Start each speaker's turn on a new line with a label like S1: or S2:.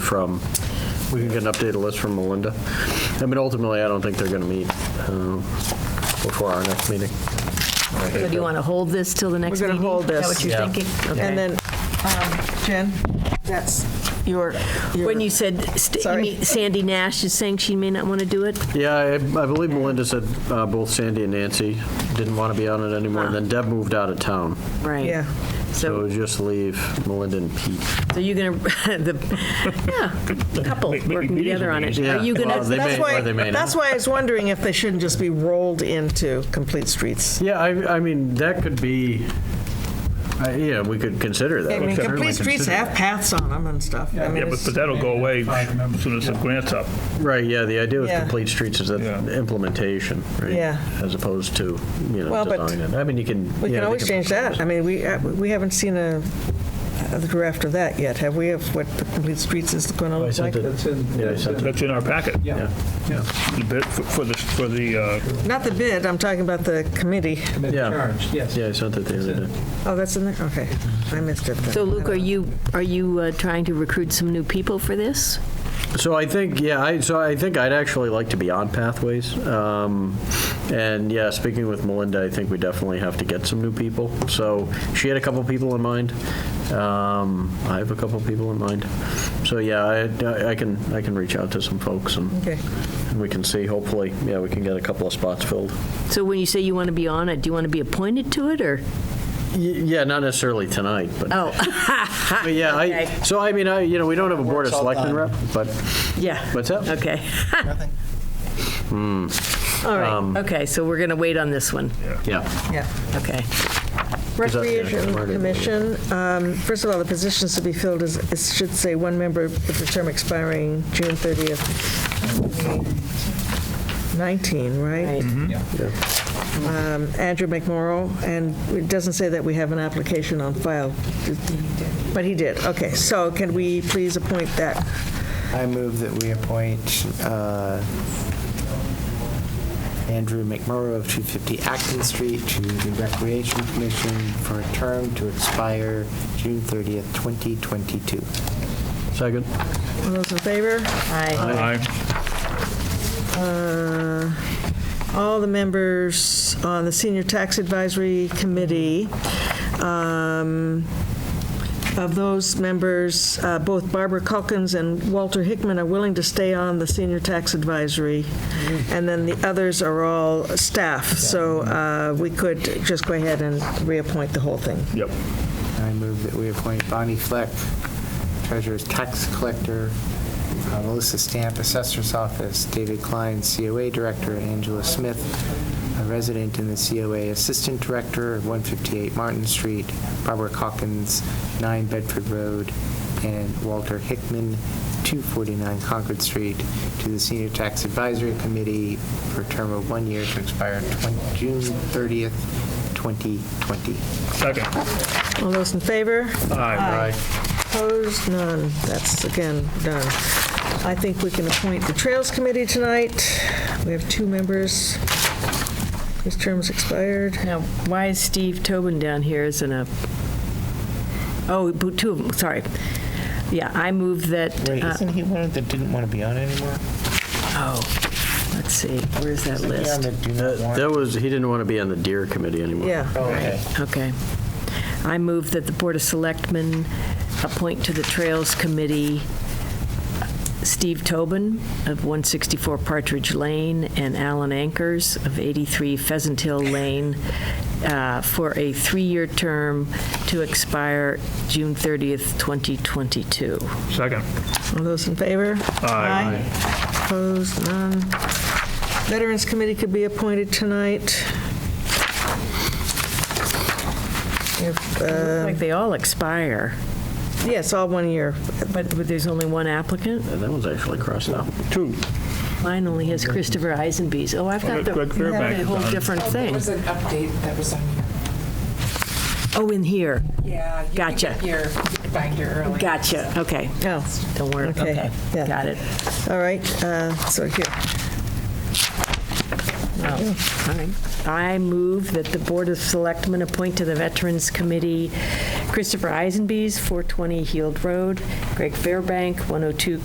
S1: from, we can get an updated list from Melinda. I mean, ultimately, I don't think they're going to meet um, before our next meeting.
S2: So do you want to hold this till the next
S3: gonna
S2: meeting?
S3: hold
S2: Is that
S3: this.
S2: what you're
S1: Yeah.
S2: thinking? Okay.
S3: And then, um, Jen, that's your, your-
S2: When you said, st- you
S3: Sorry.
S2: mean Sandy Nash is saying she may not want to do it?
S1: Yeah, I I believe Melinda said uh, both Sandy and Nancy didn't want to be on it anymore, and then
S3: Ah.
S1: Deb moved out of town.
S2: Right.
S3: Yeah.
S1: So it
S2: So,
S1: would just leave Melinda and Pete.
S2: so you're going to, the, yeah, couple
S4: Make- make
S2: working
S4: meetings
S2: together on it.
S4: amazing.
S2: Are you going
S1: Well, they may-
S2: to,
S3: that's
S1: or
S3: why,
S1: they may not.
S3: that's why I was wondering if they shouldn't just be rolled into complete streets.
S1: Yeah, I, I mean, that could be, I- yeah, we could consider that.
S3: I
S1: We
S3: mean,
S1: could certainly
S3: complete streets
S1: consider
S3: have paths on them and stuff. I mean,
S4: Yeah, but,
S3: it's-
S4: but that'll go away as soon as the grant's up.
S1: that. Right, yeah, the idea with
S3: Yeah.
S1: complete streets is that
S4: Yeah.
S1: implementation, right?
S3: Yeah.
S1: As opposed to, you know,
S3: Well, but
S1: design it. I mean, you can.
S3: We
S1: yeah,
S3: can
S1: they
S3: always change that. I mean, we, uh, we haven't seen a, a draft of that yet, have we, of what the complete streets is going to
S1: Oh, I
S3: look
S1: sent
S3: like?
S1: it-
S5: That's in,
S1: Yeah, I
S5: that's
S1: sent
S5: in-
S1: it.
S4: That's in our packet.
S5: yeah, yeah,
S4: The bid For for the, for the, uh,
S3: Not the bid, I'm talking about the committee.
S5: commit
S1: Yeah.
S5: charge, yes.
S1: Yeah, I sent it the other day.
S3: Oh, that's in there? Okay, I missed it then.
S2: so Luke, are you, are you uh, trying to recruit some new people for this?
S1: So I think, yeah, I, so I think I'd actually like to be on Pathways. Um, and yeah, speaking with Melinda, I think we definitely have to get some new people. So she had a couple people in mind. Um, I have a couple people in mind. So yeah, I, I can, I can reach out to some folks and
S3: Okay.
S1: and we can see, hopefully, yeah, we can get a couple of spots filled.
S2: So when you say you want to be on it, do you want to be appointed to it, or?
S1: Y- Yeah, not necessarily tonight, but,
S2: Oh,
S1: but yeah, I,
S2: Okay.
S1: so I mean, I, you know, we don't have a Board of
S5: Works all
S1: Selectmen
S5: done.
S1: rep, but,
S2: yeah.
S1: what's up?
S2: Okay.
S5: Nothing.
S2: All right. Okay, so we're going to wait on this one.
S1: Yeah.
S3: Yeah.
S2: Okay.
S3: Recreation Commission, um, first of all, the positions to be filled is, it should say one member with the term expiring June 30th, 19, right?
S2: Right.
S3: Um, Andrew McMorro, and it doesn't say that we have an application on file. But he did, okay. So can we please appoint that?
S6: I move that we appoint uh, Andrew McMurrow of 250 Acton Street to the Recreation Commission for a term to expire June 30th, 2022.
S1: Second?
S3: All those in favor?
S2: Aye.
S4: I,
S3: Uh, all the members on the Senior Tax Advisory Committee. Um, Of those members, uh, both Barbara Culkins and Walter Hickman are willing to stay on the Senior Tax Advisory, and then the others are all staff, so uh, we could just go ahead and reappoint the whole thing.
S4: yep.
S6: I move that we appoint Bonnie Fleck, Treasurer's Tax Collector, uh, Melissa Stamp, Assessor's Office, David Klein, COA Director, Angela Smith, a resident in the COA Assistant Director, 158 Martin Street, Barbara Hawkins, 9 Bedford Road, and Walter Hickman, 249 Concord Street, to the Senior Tax Advisory Committee for a term of one year to expire 20 June 30th, 2020.
S4: Second.
S3: All those in favor?
S4: Aye.
S3: Opposed? None. That's, again, done. I think we can appoint the Trails Committee tonight. We have two members whose terms expired.
S2: Now, why is Steve Tobin down here isn't a, oh, bo- two of them, sorry. Yeah, I move that, uh,
S6: he one that didn't want to be on anymore?
S2: oh, let's see, where's that list?
S1: That was, he didn't want to be on the Deer Committee anymore.
S3: Yeah.
S2: Okay. I move that the Board of Selectmen appoint to the Trails Committee Steve Tobin of 164 Partridge Lane and Alan Ankers of 83 Pheasant Hill Lane uh, for a three-year term to expire June 30th, 2022.
S4: Second.
S3: All those in favor?
S4: Aye.
S3: Aye. Opposed? None. Veterans Committee could be appointed tonight. If, uh,
S2: Like, they all expire,
S3: Yes, all one year.
S2: but but there's only one applicant?
S1: And That one's actually crossed out.
S4: Two.
S2: Mine only has Christopher Eisenbees. Oh, I've got the
S4: Greg Fairbank
S2: the
S4: is
S2: whole
S4: on.
S2: different
S7: There
S2: thing.
S7: was an update that was on
S2: Oh, in here.
S7: your, yeah. you could
S2: Gotcha.
S7: get Your binder early.
S2: Gotcha, okay.
S3: Oh,
S2: Don't worry,
S3: Okay,
S2: okay.
S3: yeah.
S2: Got it.
S3: all right, uh, so here.
S2: All right. I move that the Board of Selectmen appoint to the Veterans Committee Christopher Eisenbees, 420 Heald Road, Greg Fairbank, 102